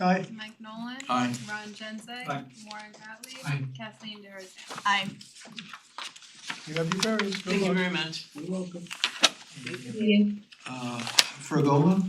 Aye. Mike Nolan. Aye. Ron Genzeg. Aye. Warren Gottlieb. Aye. Kathleen Darazan. Aye, You have your variance, good Thank you luck. very much. You're welcome. you. Uh, Fredola?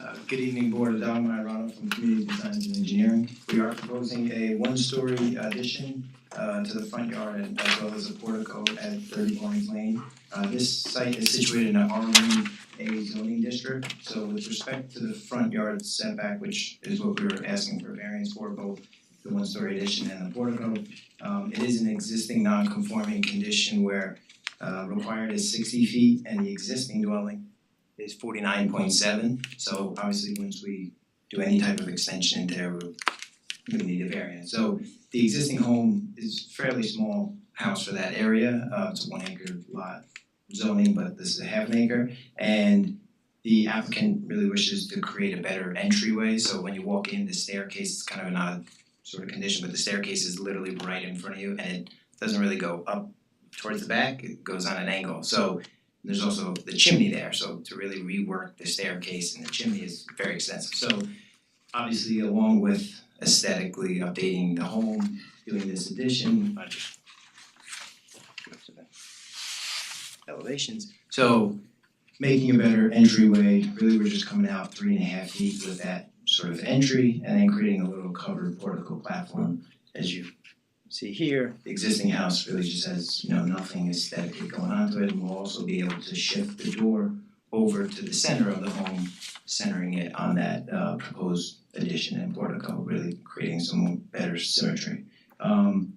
Uh, Good evening, Board. Don Myrano from Community Designs and Engineering. We are proposing a one-story addition uh, to the front yard and as well as a portico at Thirty Orange Lane. Uh, This site is situated in a R one A zoning district, so with respect to the front yard setback, which is what we were asking for variance for, both the one-story addition and the portico, um, it is an existing non-conforming condition where uh, required is sixty feet and the existing dwelling is forty-nine point seven, so obviously once we do any type of extension there, we're gonna need a variance. So the existing home is fairly small house for that area, uh it's a one acre lot zoning, but this is a half an acre. And the applicant really wishes to create a better entryway, so when you walk in, the staircase is kind of an odd sort of condition, but the staircase is literally right in front of you and it doesn't really go up towards the back, it goes on an angle. So there's also the chimney there, so to really rework the staircase and the chimney is very extensive. So obviously along with aesthetically updating the home, doing this addition, I just go to the elevations. So making a better entryway, really we're just coming out three and a half feet with that sort of entry and then creating a little covered portico platform as you see here, the existing house really just has, you know, nothing aesthetically going on to it, and we'll also be able to shift the door over to the center of the home, centering it on that uh proposed addition and portico, really creating some better symmetry. Um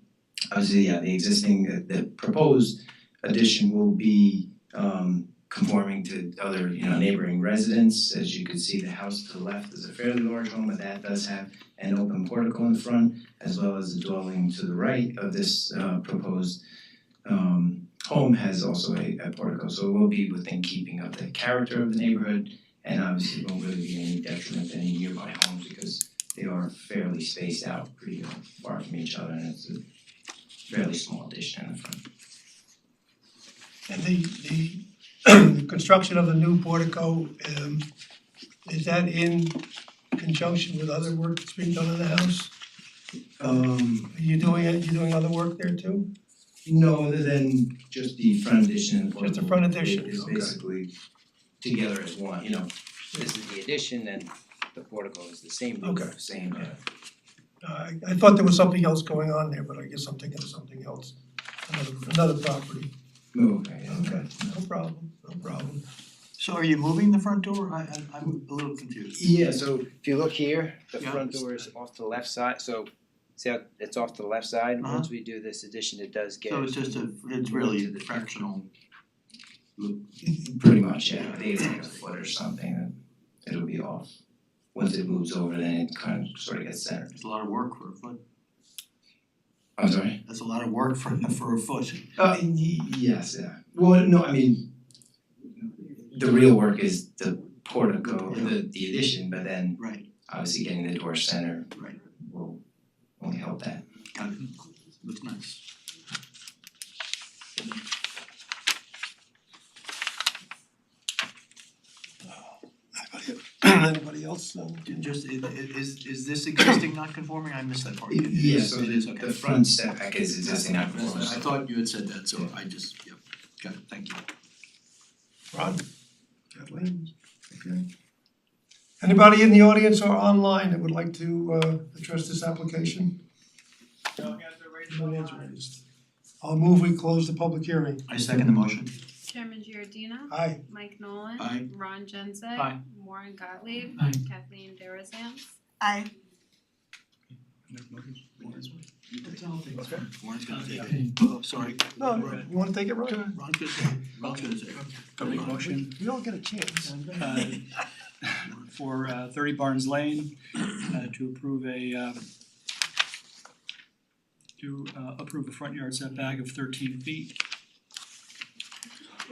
obviously, yeah, the existing, the- the proposed addition will be um conforming to other, you know, neighboring residents. As you can see, the house to the left is a fairly large home, but that does have an open portico in the front as well as the dwelling to the right of this uh proposed um home has also a a portico, so it will be within keeping of the character of the neighborhood and obviously won't really be any detriment to any nearby homes because they are fairly spaced out pretty far from each other and it's a fairly small addition in the front. And the the construction of the new portico, um is that in conjunction with other work that's being done in the house? Um Are you doing it, you doing other work there too? No, other than just the front addition and Just the front addition, It's okay. basically together as one, you know, this is the addition and the portico is the same roof, Okay. same uh Uh, I I thought there was something else going on there, but I guess I'm thinking of something else, another another property. move, right, yeah. Okay, no problem, no problem. So are you moving the front door? I I I'm a little confused. Yeah, so if you look here, the Yeah. front door is off to the left side, so see how it's off to the left side, Uh-huh. once we do this addition, it does get So it's just a, it's really a fractional. Pretty much, yeah, I think it's like a foot or something, and it'll be off. Once it moves over, then it kind of sort of gets centered. It's a lot of work for a foot. I'm sorry? That's a lot of work for for a foot. Uh, y- yes, yeah. Well, no, I mean, the real work is the portico, the the addition, but then Right. obviously getting the door center Right. will only help that. Got it. Looks nice. Anybody else? uh, Just i- i- is is this existing non-conforming? I missed that part. Yeah, so It is, the okay. the front setback is existing I not missed that. I thought you had said that, so I just, yep, got it, thank you. Ron? Kathleen? Okay. Anybody in the audience or online that would like to uh address this application? No hands raised. I'll move we close the public hearing. I second the motion. Chairman Giordina. Aye. Mike Nolan. Aye. Ron Genzeg. Aye. Warren Gottlieb. Aye. Kathleen Darazan. aye. Okay. Warren's gonna take it. Oh, sorry. No, Ron- you wanna take it, Ron? Ron's gonna say, it. Ron's gonna say. it. I'll make a motion We all get a chance. uh, for uh, thirty Barnes Lane uh, to approve a um, to uh, approve a front yard setback of thirteen feet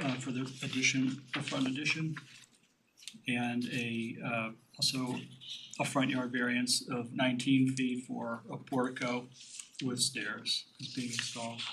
uh, for the addition, the front addition, and a uh, also a front yard variance of nineteen feet for a portico with stairs is being installed.